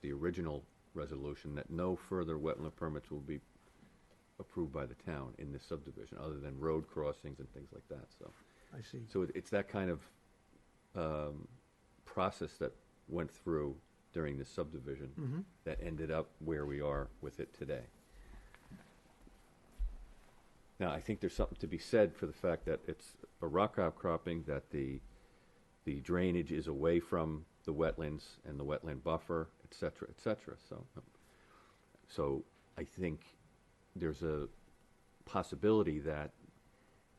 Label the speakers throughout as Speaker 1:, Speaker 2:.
Speaker 1: the original resolution, that no further wetland permits will be approved by the town in this subdivision, other than road crossings and things like that, so.
Speaker 2: I see.
Speaker 1: So it- it's that kind of um, process that went through during this subdivision that ended up where we are with it today. Now, I think there's something to be said for the fact that it's a rock outcropping, that the, the drainage is away from the wetlands and the wetland buffer, et cetera, et cetera, so. So I think there's a possibility that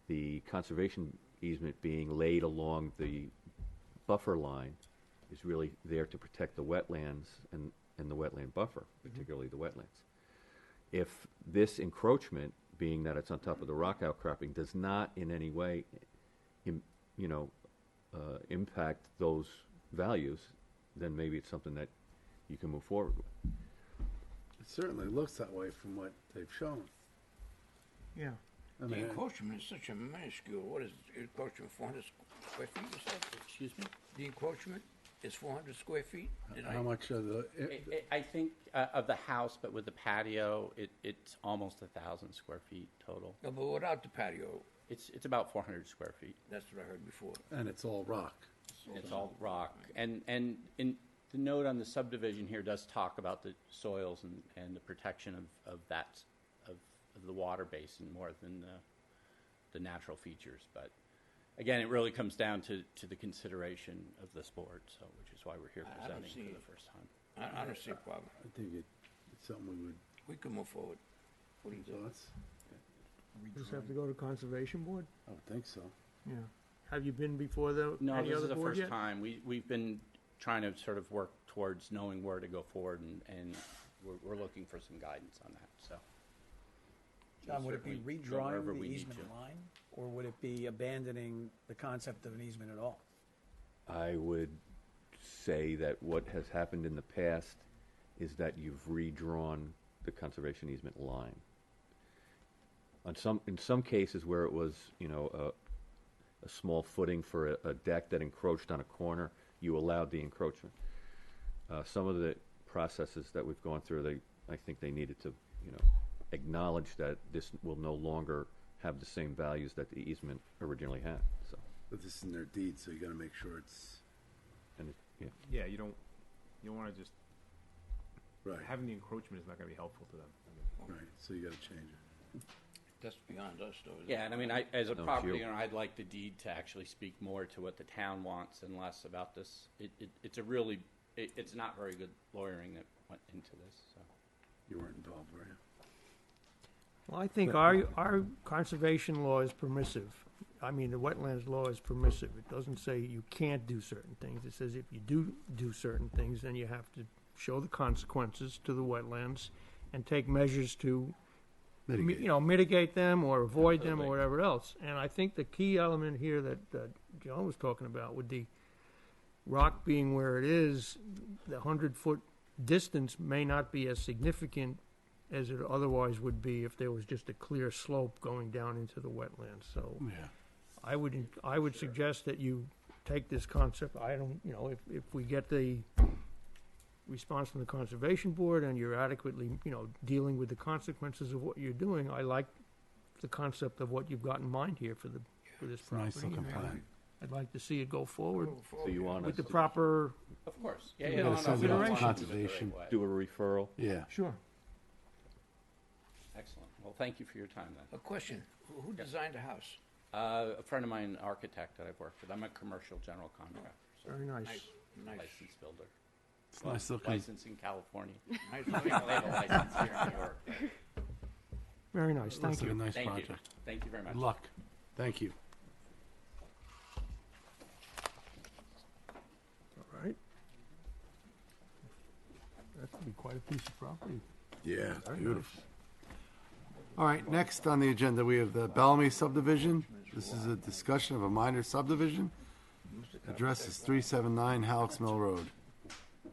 Speaker 1: the conservation easement being laid along the buffer line is really there to protect the wetlands and, and the wetland buffer, particularly the wetlands. If this encroachment, being that it's on top of the rock outcropping, does not in any way, im- you know, uh, impact those values, then maybe it's something that you can move forward with.
Speaker 3: It certainly looks that way from what they've shown.
Speaker 2: Yeah.
Speaker 3: I
Speaker 4: The
Speaker 3: mean,
Speaker 4: encroachment is such a minuscule, what is it, encroachment, four hundred square feet or something?
Speaker 5: Excuse me?
Speaker 4: The encroachment is four hundred square feet? Did I,
Speaker 3: how much of the,
Speaker 5: I-
Speaker 3: it-
Speaker 5: I I think uh, of the house, but with the patio, it, it's almost a thousand square feet total.
Speaker 4: no, but without the patio,
Speaker 5: It's, it's about four hundred square feet.
Speaker 4: that's what I heard before.
Speaker 3: and it's all rock.
Speaker 5: It's all rock. And, and in, the note on the subdivision here does talk about the soils and, and the protection of, of that, of, of the water basin more than the, the natural features. But again, it really comes down to, to the consideration of this board, so, which is why we're here
Speaker 4: I- I don't
Speaker 5: presenting
Speaker 4: see-
Speaker 5: for the first time.
Speaker 4: I, I don't
Speaker 3: Uh,
Speaker 4: see a problem.
Speaker 3: I think it, it's something we would,
Speaker 4: We can move forward. What do you think?
Speaker 3: thoughts?
Speaker 2: Just have to go to Conservation Board?
Speaker 3: I would think so.
Speaker 2: Yeah. Have you been before the,
Speaker 5: No,
Speaker 2: any
Speaker 5: this is
Speaker 2: other
Speaker 5: the
Speaker 2: board
Speaker 5: first
Speaker 2: yet?
Speaker 5: time. We, we've been trying to sort of work towards knowing where to go forward, and, and we're, we're looking for some guidance on that, so.
Speaker 6: John, would it be
Speaker 5: Certainly go
Speaker 6: redrawing
Speaker 5: wherever
Speaker 6: the
Speaker 5: we need
Speaker 6: easement
Speaker 5: to.
Speaker 6: line, or would it be abandoning the concept of an easement at all?
Speaker 1: I would say that what has happened in the past is that you've redrawn the conservation easement line. On some, in some cases where it was, you know, a, a small footing for a, a deck that encroached on a corner, you allowed the encroachment. Uh, some of the processes that we've gone through, they, I think they needed to, you know, acknowledge that this will no longer have the same values that the easement originally had, so,
Speaker 3: But this is in their deed, so you gotta make sure it's
Speaker 1: and, it- yeah.
Speaker 7: Yeah, you don't, you don't wanna just,
Speaker 3: right,
Speaker 7: having the encroachment is not gonna be helpful to them.
Speaker 3: right, so you gotta change it.
Speaker 4: That's beyond us though. isn't it?
Speaker 5: Yeah, and I mean, I, as a
Speaker 1: No, it's
Speaker 5: property
Speaker 1: you.
Speaker 5: owner, I'd like the deed to actually speak more to what the town wants and less about this. It, it, it's a really, it, it's not very good lawyering that went into this, so.
Speaker 3: You weren't involved, were you?
Speaker 2: Well, I think our, our conservation law is permissive. I mean, the wetlands law is permissive. It doesn't say you can't do certain things. It says if you do do certain things, then you have to show the consequences to the wetlands and take measures to mi- you
Speaker 3: Mitigate.
Speaker 2: know, mitigate them or avoid them
Speaker 5: Absolutely.
Speaker 2: or whatever else. And I think the key element here that, that John was talking about with the rock being where it is, the hundred foot distance may not be as significant as it otherwise would be if there was just a clear slope going down into the wetlands. So
Speaker 3: Yeah.
Speaker 2: I would, en- I would suggest that you take this concept, I don't, you know, if, if we get the response from the Conservation Board and you're adequately, you know, dealing with the consequences of what you're doing, I like the concept of what you've got in mind here for the, for this
Speaker 3: It's a nice
Speaker 2: property.
Speaker 3: looking
Speaker 2: and
Speaker 3: plan.
Speaker 2: I'd like to see it go forward
Speaker 4: Move
Speaker 1: So you
Speaker 4: forward.
Speaker 1: want us
Speaker 2: with the
Speaker 1: to
Speaker 2: proper,
Speaker 5: Of course, yeah,
Speaker 2: You
Speaker 5: yeah.
Speaker 2: gotta
Speaker 5: no, no,
Speaker 2: send
Speaker 5: we
Speaker 2: it
Speaker 5: don't
Speaker 2: to
Speaker 5: want to do it the
Speaker 3: conservation.
Speaker 5: right way.
Speaker 1: do a referral?
Speaker 3: Yeah,
Speaker 2: sure.
Speaker 5: Excellent. Well, thank you for your time then.
Speaker 4: A question, Who- who designed the house?
Speaker 5: Uh, a friend of mine, an architect that I've worked with, I'm a commercial general contractor, so
Speaker 2: Very nice.
Speaker 4: Nice, nice.
Speaker 5: licensed builder.
Speaker 3: it's nice looking.
Speaker 5: License in California.
Speaker 4: nice
Speaker 5: They
Speaker 4: looking
Speaker 5: have a
Speaker 4: house.
Speaker 5: license here in New York.
Speaker 2: Very nice, thank
Speaker 3: Looks like a
Speaker 2: you.
Speaker 3: nice
Speaker 5: Thank you.
Speaker 3: project.
Speaker 5: Thank you very much.
Speaker 3: Good luck. Thank you.
Speaker 2: All right. That could be quite a piece of property.
Speaker 3: Yeah, it's beautiful. All right, next on the agenda, we have the Bellamy subdivision. This is a discussion of a minor subdivision. Address is 379 Halix Mill Road.
Speaker 2: Oh,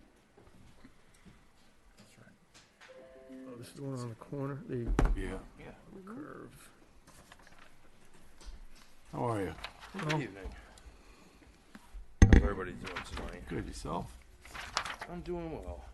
Speaker 2: This is the one on the corner, the
Speaker 3: Yeah.
Speaker 4: Yeah.
Speaker 2: curve.
Speaker 3: How are you?
Speaker 2: Well,
Speaker 8: How's everybody doing tonight?
Speaker 3: Good, yourself?
Speaker 8: I'm doing well.